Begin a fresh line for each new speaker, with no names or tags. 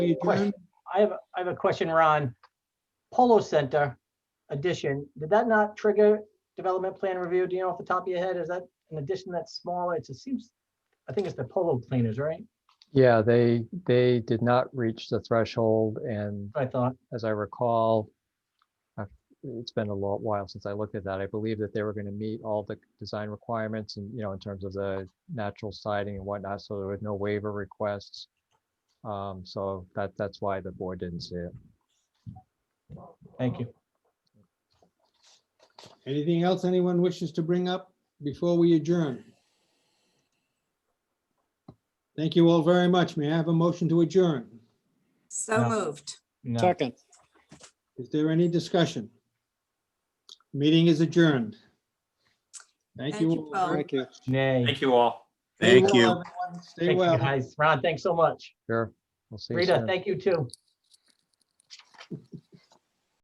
we adjourn?
Question.
I have, I have a question, Ron. Polo Center addition, did that not trigger development plan review? Do you know off the top of your head? Is that an addition that's smaller? It's- It seems, I think it's the Polo Cleaners, right?
Yeah, they, they did not reach the threshold and
I thought,
as I recall, I've- it's been a lot while since I looked at that. I believe that they were going to meet all the design requirements and, you know, in terms of the natural siding and whatnot, so there was no waiver requests. Um, So that, that's why the board didn't see it.
thank you.
Anything else anyone wishes to bring up before we adjourn? Thank you all very much. May I have a motion to adjourn?
No.
So moved.
No,
Second.
Is there any discussion? Meeting is adjourned. Thank you.
Thank you
all very
both.
Thank you.
nay.
Thank you all.
Stay
Thank
well,
you.
everyone. Stay
Thank you,
well.
guys. Ron, thanks so much.
Sure. We'll see you
Rita,
soon.
thank you too.